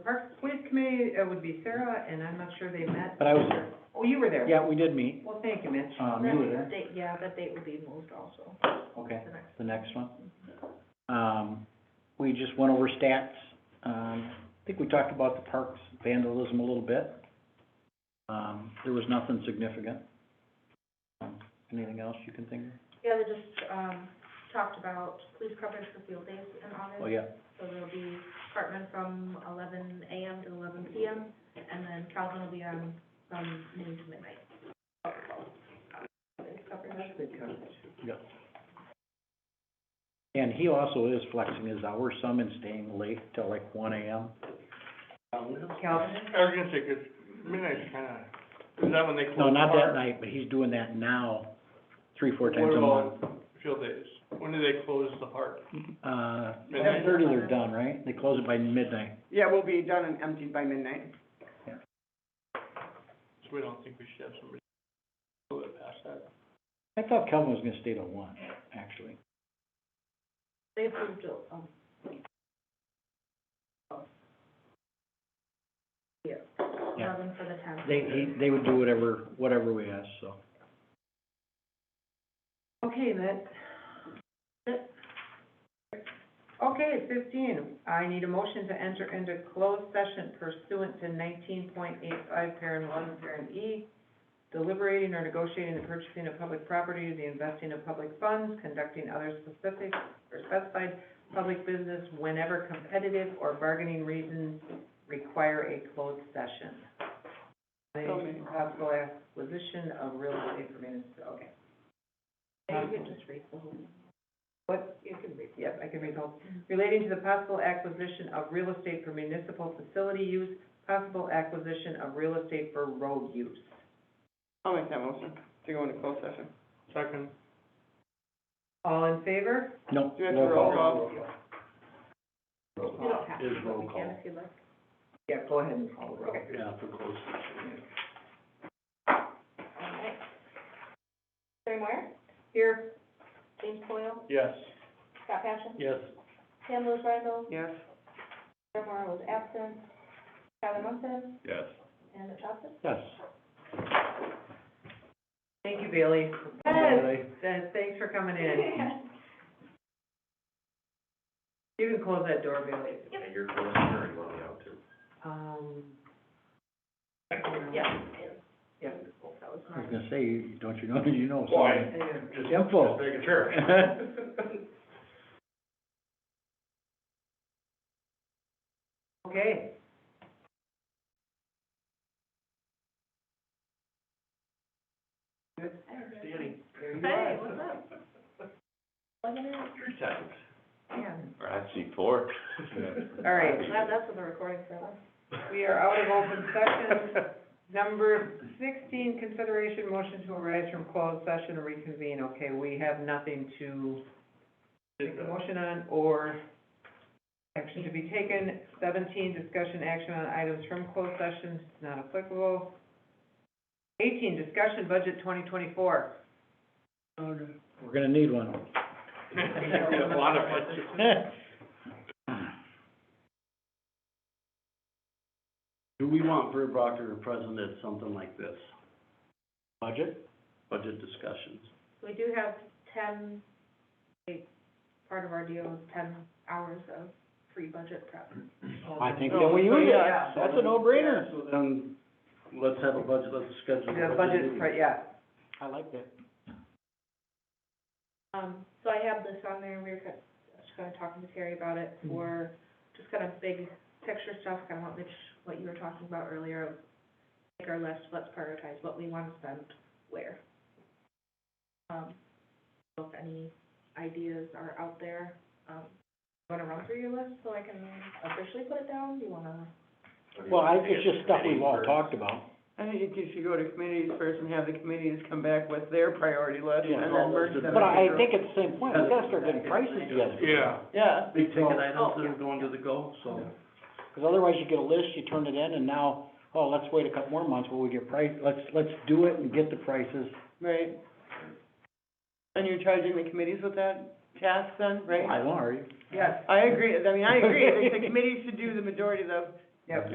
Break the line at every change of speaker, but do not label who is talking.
Usually it would be Sarah, and I'm not sure they met.
But I was there.
Oh, you were there?
Yeah, we did meet.
Well, thank you, Mitch.
Um, you were
That
there.
date- Yeah, that date would be moved also,
Okay,
the next.
the next one. Um, we just went over stats. Um, I think we talked about the parks vandalism a little bit. Um, there was nothing significant. Um, Anything else you can think of?
Yeah, they just, um, talked about police coverage for field days in
Oh,
August.
yeah,
So there'll be Cartman from eleven AM to eleven PM, and then Calvin will be on from noon to midnight. Police coverage.
That's good coverage.
yeah. And he also is flexing his hours some and staying late till like one AM.
Calvin?
I was gonna say, 'cause midnight's kinda, is that when they close?
No, not
park?
that night, but he's doing that now, three, four times
What
a month.
about field days? When do they close the park?
Uh,
Midnight?
thirty they're done, right? They close it by midnight.
Yeah, we'll be done and emptied by midnight.
So we don't think we should have somebody go that past that.
I thought Kelvin was gonna stay till one, actually.
They approved, it, um,
Yeah.
Yeah.
eleven for the tenth.
They, he, they would do whatever, whatever we asked, so.
Okay, that. Okay, fifteen, I need a motion to enter into closed session pursuant to nineteen point eight five, parent one, parent E, deliberating or negotiating the purchasing of public property, the investing of public funds, conducting other specific or specified public business whenever competitive or bargaining reasons require a closed session. The possible acquisition of real estate for municipal, okay.
You could just read the whole.
What? You can read. Yes, I can read all. Relating to the possible acquisition of real estate for municipal facility use, possible acquisition of real estate for road use.
I'll make that motion to go into closed session.
Second,
All in favor?
No,
Do you have to
roll
roll
call.
call?
You don't have to,
Is
but
roll
you
call.
can if you like.
Yeah, go ahead and call the roll.
Yeah, for closed session.
All right. Terry Moyer,
Here,
James Coyle,
yes.
Scott Passion,
Yes.
Pam Lewis Rydell,
Yes.
Sarah Moore was absent, Tyler Munson,
Yes.
and Mitch Hobson.
Yes.
thank you, Bailey.
Yes.
Yes, thanks for coming in. You can close that door, Bailey.
And you're going there and let me out too.
Um,
Yeah,
yeah.
that was
I was
mine.
gonna say, you- don't you know, you know, so.
Why? Just-
Info.
Just making sure.
Okay.
Danny,
There you
Hey,
are.
what's up? Plugging in.
three times.
Yeah.
Or actually four.
All right.
That- That's what the recording said.
We are out of open session. Number sixteen, consideration motion to arise from closed session and reconvene. Okay, we have nothing to make a motion on or action to be taken. Seventeen, discussion action on items from closed session, not applicable. Eighteen, discussion budget twenty twenty-four.
We're gonna need one.
A lot of it.
Who we want for a Proctor to present at something like this,
Budget?
budget discussions?
We do have ten, like, part of our deal is ten hours of free budget prep.
I think then we use it. Oh, That's a no-brainer.
So then, let's have a budget, let's schedule a
The
budget
budget,
meeting.
right, yeah.
I like that.
Um, so I have this on there, and we were kind of, just kind of talking to Terry about it for, just kind of big picture stuff, kind of what Mitch, what you were talking about earlier, of make our list, let's prioritize what we want to spend where. Um, so if any ideas are out there, um, wanna run through your list so I can officially put it down, do you wanna?
Well, I, it's just stuff we've all talked about.
I think it should go to committees first and have the committees come back with their priority list
Yeah.
and then merge them.
But I, I think at the same point, we gotta start getting prices together.
Yeah.
Yeah.
Big ticket
Oh,
items that
yeah.
are going to the goal, so.
Because otherwise you get a list, you turn it in, and now, oh, let's wait a couple more months, while we get price, let's, let's do it and get the prices.
Right. And you're charging the committees with that task then, right?
By law, are you?
Yes,
I agree, I mean, I agree, I think the committees should do the majority of the
yep.